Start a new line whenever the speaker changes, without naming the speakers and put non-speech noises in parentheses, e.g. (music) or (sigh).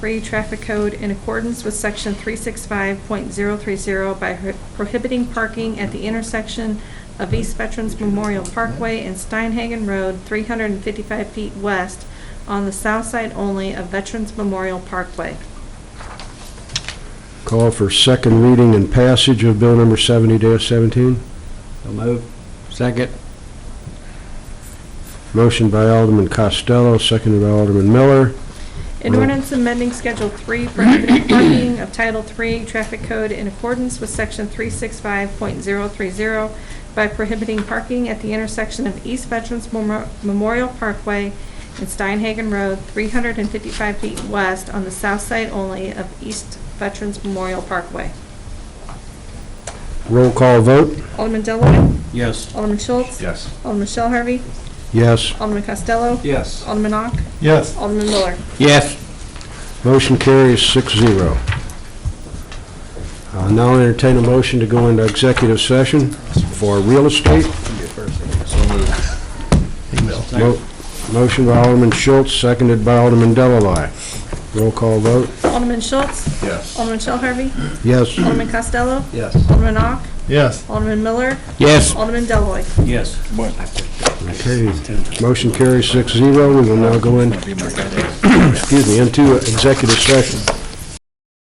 free traffic code in accordance with section 365.030 by pro- prohibiting parking at the intersection of East Veterans Memorial Parkway and Steinhagen Road, 355 feet west, on the south side only of Veterans Memorial Parkway.
Call for second reading and passage of bill number 70-17.
So move. Second.
Motion by Alderman Costello, seconded by Alderman Miller.
An ordinance amending Schedule 3 prohibiting parking of Title III Traffic Code in accordance with Section 365.030 by prohibiting parking at the intersection of East Veterans Memo- Memorial Parkway and Steinhagen Road, 355 feet west on the south side only of East Veterans Memorial Parkway.
Roll call vote?
Alderman Deloitte?
Yes.
Alderman Schultz?
Yes.
Alderman Shell Harvey?
Yes.
Alderman Costello?
Yes.
Alderman Ock?
Yes.
Alderman Miller?
Yes.
Motion carries six zero. I'll now entertain a motion to go into executive session for real estate. Mo- Motion by Alderman Schultz, seconded by Alderman Delloy. Roll call vote?
Alderman Schultz?
Yes.
Alderman Shell Harvey?
Yes.
Alderman Costello?
Yes.
Alderman Ock?
Yes.
Alderman Miller?
Yes.
Alderman Deloitte?
Yes.
Okay, (clears throat) motion carries six zero. We will now go in, excuse me, into executive session.